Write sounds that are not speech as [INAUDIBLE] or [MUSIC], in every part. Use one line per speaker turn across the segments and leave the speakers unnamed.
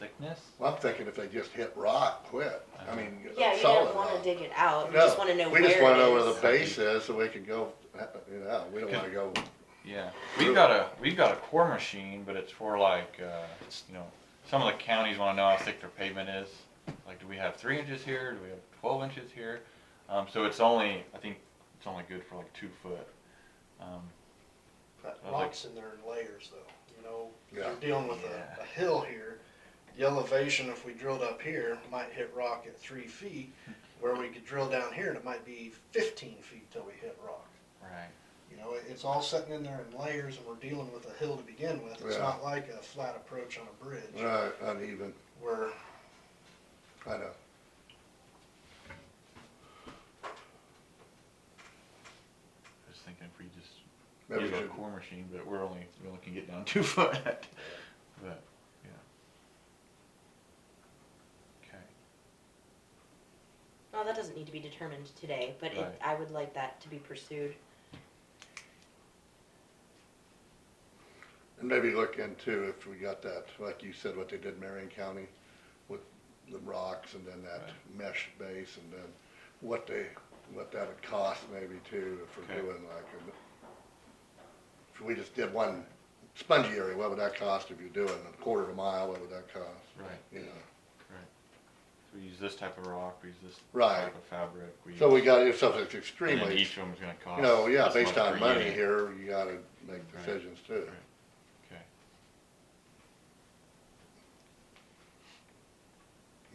thickness?
Well, I'm thinking if they just hit rock, quit. I mean,
Yeah, you
solid
don't wanna
rock.
dig it out, you
No,
just wanna know
We just
where
wanna know
it
where the
is.
base is so we can go, you know, we don't wanna go,
Yeah, we've got a, we've got a core machine, but it's for like, uh, it's, you know, some of the counties wanna know how thick their pavement is. Like, do we have three inches here? Do we have twelve inches here? Um, so it's only, I think it's only good for like two foot. Um,
That
I was like-
rock's in there in layers though, you know,
Yeah.
you're dealing with
Yeah.
a, a hill here. The elevation, if we drilled up here, might hit rock at
[LAUGHS]
three feet, where we could drill down here and it might be fifteen feet till we hit rock.
right,
You know, it- it's all sitting in there in layers and we're dealing with a hill to begin with. It's
Yeah.
not like a flat approach on a bridge
uh, uneven,
where
I know.
just thinking if we just
Maybe
use a
should-
core machine, but we're only, we only can get down [LAUGHS] two foot. But, yeah. Okay.
Oh,
Well, that doesn't need to be determined today, but it,
Right.
I would like that to be pursued.
And maybe look into if we got that, like you said, what they did in Marion County with the rocks and then that mesh base and then what they, what that would cost maybe too, if we're
Okay.
doing like a, if we just did one spongy area, what would that cost if you're doing a quarter of a mile, what would that cost?
Right.
You know,
So we use this type of rock, we use this
Right.
type of fabric. We
so
use,
we gotta do something that's
and then
extremely,
each of them's going to cost.
you know, yeah,
this much
based
per
on money
unit.
here, you gotta make
Right.
decisions too.
Right. Okay.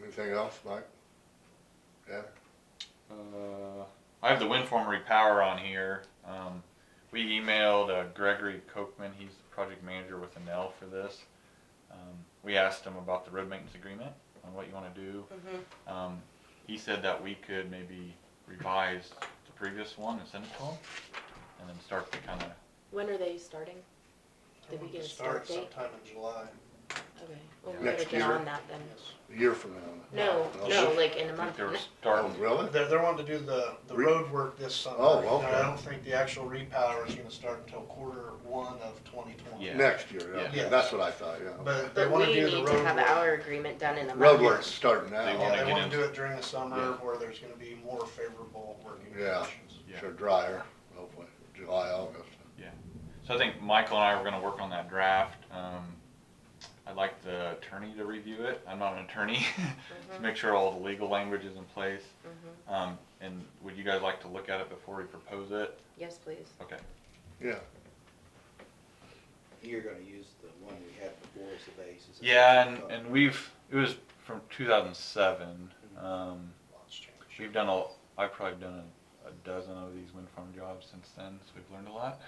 Anything else, Mike? Yeah?
Uh, I have the wind farm repower on here. Um, we emailed uh, Gregory Kochman. He's the project manager with Enel for this. Um, we asked him about the road maintenance agreement on what you want to do.
Mhm.
Um, he said that we could maybe revise the previous one and send it to him, and then start to kind of
When are they starting? Did we
we
get
could
a start
start
date?
sometime in July.
Okay, well, we
Next
gotta get
year.
on that then.
Yes.
A year from now.
No,
Oh,
no,
shit.
like in a
I think
month.
they were starting.
Oh, really?
They're, they're wanting to do the, the
Re-
road work this summer.
Oh,
And
okay.
I don't think the actual repower is gonna start until quarter one of twenty twenty.
Yeah.
Next year, yeah.
Yeah.
That's what I thought, yeah.
But they
But
wanna
we
do the
need to
road
have
work.
our agreement done in a month.
Roadwork's starting
They wanna
now,
Yeah, they
get
wanna
in-
do it during the summer
Yeah.
where there's gonna be more favorable working
Yeah.
conditions.
Yeah.
sure drier, hopefully, July, August.
So I think Michael and I were gonna work on that draft. Um, I'd like the attorney to review it. I'm not an attorney. [LAUGHS] To make sure all the legal language is in place.
Mhm.
Um, and would you guys like to look at it before we propose it?
Yes, please.
Okay,
Yeah,
You're gonna use the one we had before as the base. is that
yeah,
what you
and,
thought?
and we've, it was from two thousand seven. Um,
Lots change.
we've done a, I've probably done a, a dozen of these wind farm jobs since then, so we've learned a lot.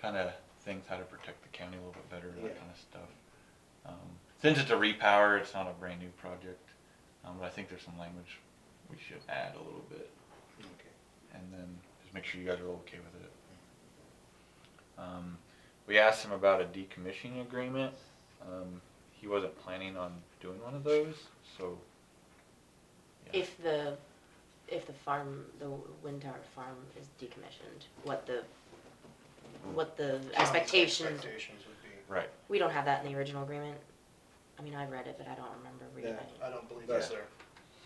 Kinda things, how to protect the county a little bit better,
Yeah.
that kinda stuff. Um, since it's a repower, it's not a brand new project, um, but I think there's some language we should add a little bit.
Okay.
and then just make sure you guys are okay with it. Um, we asked him about a decommissioning agreement. Um, he wasn't planning on doing one of those, so Yeah.
If the, if the farm, the wind tower farm is decommissioned, what the, what the expectations,
Expectations would be,
right.
we don't have that in the original agreement. I mean, I read it, but I don't remember reading
Yeah.
it.
I don't believe that's there.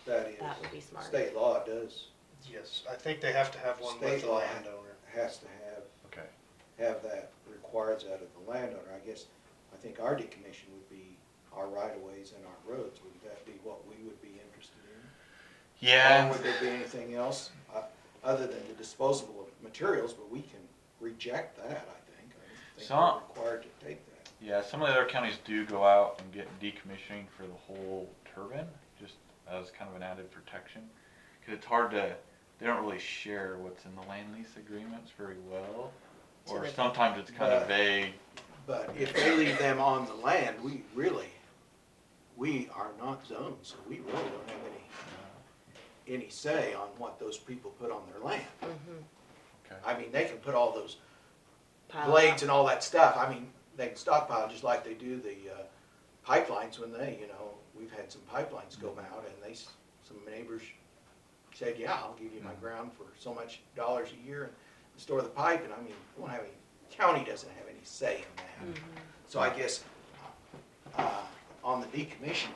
That
That would
is,
be smart.
state law does,
Yes, I think they have to have one
State
with the
law.
landowner.
has to have,
Okay.
have that requires out of the landowner. I guess, I think our decommission would be our right of ways and our roads. Would that be what we would be interested in?
Yeah.
Or would there be anything else, uh, other than the disposable of materials, but we can reject that, I think. I think
Some-
we're required to take that.
Yeah, some of the other counties do go out and get decommissioning for the whole turbine, just as kind of an added protection. Because it's hard to, they don't really share what's in the land lease agreements very well.
So
Or
they-
sometimes it's kind of
But-
vague.
But if they leave them on the land, we really, we are not zoned, so we really don't have any, any say on what those people put on their land.
Mhm.
Okay.
I mean, they can put all those
Pile
blades
up.
and all that stuff, I mean, they can stockpile just like they do the, uh, pipelines when they, you know, we've had some pipelines go out and they, s- some neighbors said, yeah, I'll give you my ground for so much dollars a year and store the pipe, and I mean, we don't have any, county doesn't have any say in that. So I guess, uh, on the decommission